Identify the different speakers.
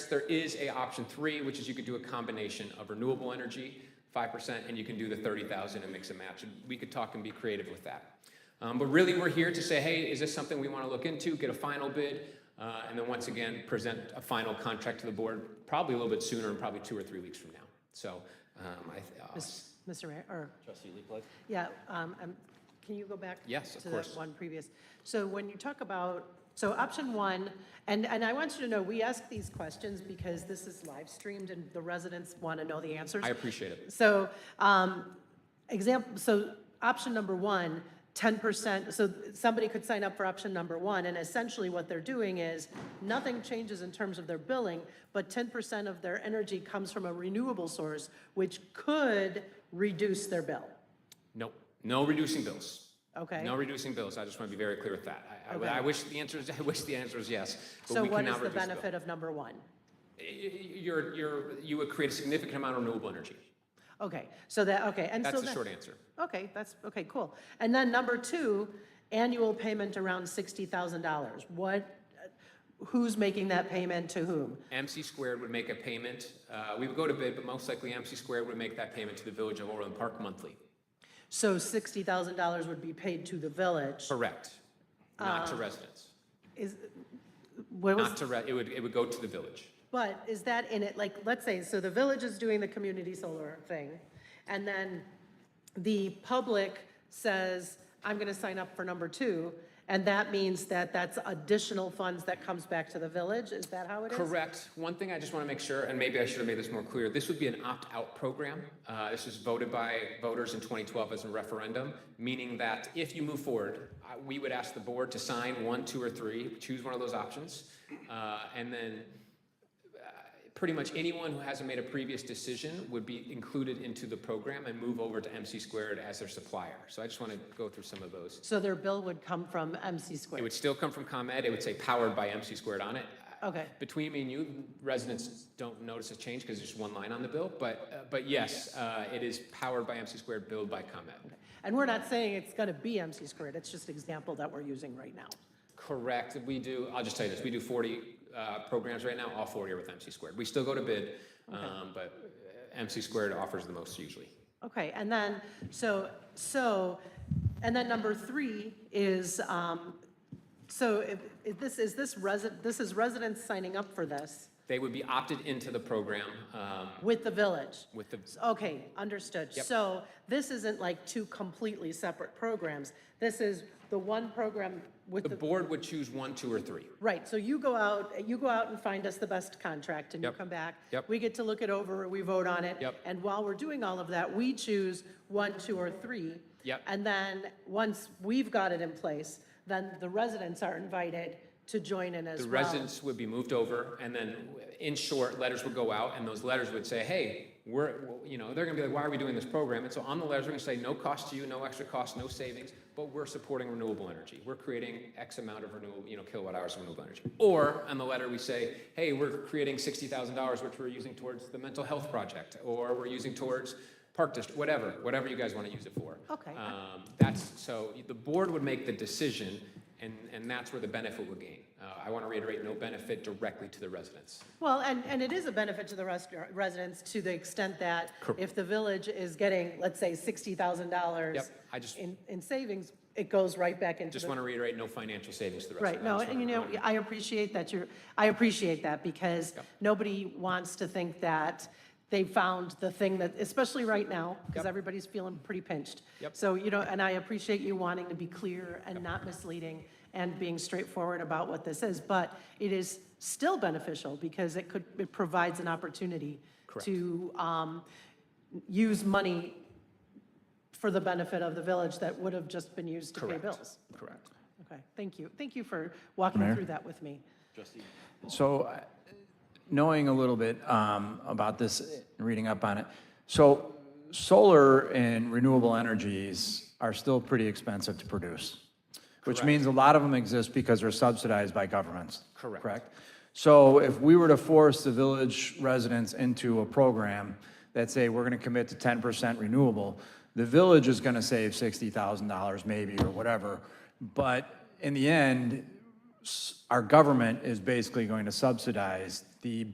Speaker 1: There is a option three, which is you could do a combination of renewable energy, 5%, and you can do the 30,000 and mix and match. And we could talk and be creative with that. Um, but really, we're here to say, hey, is this something we want to look into? Get a final bid, uh, and then once again, present a final contract to the board, probably a little bit sooner, and probably two or three weeks from now. So, um, I, uh,
Speaker 2: Mis- Mr. Mayor, or,
Speaker 3: Trustee Leaflet?
Speaker 2: yeah, um, um, can you go back?
Speaker 1: Yes, of
Speaker 2: To that
Speaker 1: course.
Speaker 2: one previous. So when you talk about, so option one, and, and I want you to know, we ask these questions because this is live streamed and the residents want to know the answers.
Speaker 1: I appreciate it.
Speaker 2: So, um, example, so option number one, 10%, so somebody could sign up for option number one, and essentially what they're doing is, nothing changes in terms of their billing, but 10% of their energy comes from a renewable source, which could reduce their bill,
Speaker 1: Nope, no reducing bills.
Speaker 2: okay?
Speaker 1: No reducing bills. I just want to be very clear with that. I- I, I
Speaker 2: Okay.
Speaker 1: wish the answer is, I wish the answer is yes, but
Speaker 2: So
Speaker 1: we
Speaker 2: what is
Speaker 1: cannot
Speaker 2: the
Speaker 1: reduce the bill.
Speaker 2: benefit of number one?
Speaker 1: Y- y- You're, you're, you would create a significant amount of renewable energy.
Speaker 2: Okay, so that, okay, and so
Speaker 1: That's the
Speaker 2: that-
Speaker 1: short answer.
Speaker 2: Okay, that's, okay, cool. And then number two, annual payment around $60,000. What, who's making that payment to whom?
Speaker 1: MC squared would make a payment, uh, we would go to bid, but most likely MC squared would make that payment to the Village of Overland Park monthly.
Speaker 2: So $60,000 would be paid to the village.
Speaker 1: Correct. Not
Speaker 2: Uh,
Speaker 1: to residents.
Speaker 2: Is, what
Speaker 1: Not
Speaker 2: was,
Speaker 1: to, re- it would, it would go to the village.
Speaker 2: but is that in it, like, let's say, so the village is doing the community solar thing, and then the public says, I'm going to sign up for number two, and that means that that's additional funds that comes back to the village? Is that how it is?
Speaker 1: Correct. One thing I just want to make sure, and maybe I should have made this more clear, this would be an opt-out program. Uh, This was voted by voters in 2012 as a referendum, meaning that if you move forward, I- we would ask the board to sign one, two, or three, choose one of those options. uh, And then uh, pretty much anyone who hasn't made a previous decision would be included into the program and move over to MC squared as their supplier. So I just want to go through some of those.
Speaker 2: So their bill would come from MC
Speaker 1: It
Speaker 2: squared?
Speaker 1: would still come from ComEd. It would say powered by MC squared on it.
Speaker 2: Okay,
Speaker 1: Between me and you, residents don't notice a change because there's one line on the bill, but, uh, but yes, uh, it is powered by MC squared, billed by ComEd.
Speaker 2: and we're not saying it's going to be MC squared, it's just an example that we're using right now.
Speaker 1: Correct, we do, I'll just tell you this, we do 40 uh, programs right now, all 40 are with MC squared. We still go to bid, um, but uh, MC squared offers the most usually.
Speaker 2: Okay, and then, so, so, and then number three is, um, so if, if this, is this resident, this is residents signing up for this
Speaker 1: They would be opted into the program um,
Speaker 2: with the village?
Speaker 1: with the,
Speaker 2: Okay, understood.
Speaker 1: Yep.
Speaker 2: So this isn't like two completely separate programs. This is the one program with
Speaker 1: the
Speaker 2: the,
Speaker 1: board would choose one, two, or three.
Speaker 2: right, so you go out, you go out and find us the best contract and you
Speaker 1: Yep.
Speaker 2: come back.
Speaker 1: Yep.
Speaker 2: We get to look it over, we vote on it.
Speaker 1: Yep.
Speaker 2: And while we're doing all of that, we choose one, two, or three.
Speaker 1: Yep.
Speaker 2: And then, once we've got it in place, then the residents are invited to join in as
Speaker 1: The
Speaker 2: well.
Speaker 1: residents would be moved over, and then, in short, letters would go out, and those letters would say, hey, we're, you know, they're gonna be like, why are we doing this program? And so on the letters, we're gonna say, no cost to you, no extra cost, no savings, but we're supporting renewable energy. We're creating X amount of renewable, you know, kilowatt hours of renewable energy. Or, on the letter, we say, hey, we're creating sixty thousand dollars, which we're using towards the mental health project, or we're using towards park district, whatever, whatever you guys wanna use it for.
Speaker 2: Okay.
Speaker 1: Um, That's, so the board would make the decision, and, and that's where the benefit would gain. Uh, I want to reiterate, no benefit directly to the residents.
Speaker 2: Well, and, and it is a benefit to the rest, residents to the extent that if the village is getting, let's say, sixty thousand dollars
Speaker 1: Yep, I just,
Speaker 2: in, in savings, it goes right back into
Speaker 1: just
Speaker 2: the
Speaker 1: want to reiterate, no financial savings to the residents.
Speaker 2: Right, no, and you know, I appreciate that you're, I appreciate that because nobody wants to think that they found the thing that, especially right now, because
Speaker 1: Yep.
Speaker 2: everybody's feeling pretty pinched.
Speaker 1: Yep.
Speaker 2: So, you know, and I appreciate you wanting to be clear and not misleading and being straightforward about what this is, but it is still beneficial because it could, it provides an opportunity to um, use money for the benefit of the village that would have just been used to pay
Speaker 1: Correct.
Speaker 2: bills.
Speaker 1: Correct.
Speaker 2: Okay, thank you. Thank you for walking
Speaker 4: Mayor?
Speaker 2: through that with me.
Speaker 3: Trustee,
Speaker 4: So uh, knowing a little bit um, about this, and reading up on it, so solar and renewable energies are still pretty expensive to produce, which means a lot of them exist because they're subsidized by governments.
Speaker 1: Correct.
Speaker 4: Correct? So if we were to force the village residents into a program that say, we're going to commit to 10% renewable, the village is going to save $60,000 maybe or whatever. But in the end, our government is basically going to subsidize the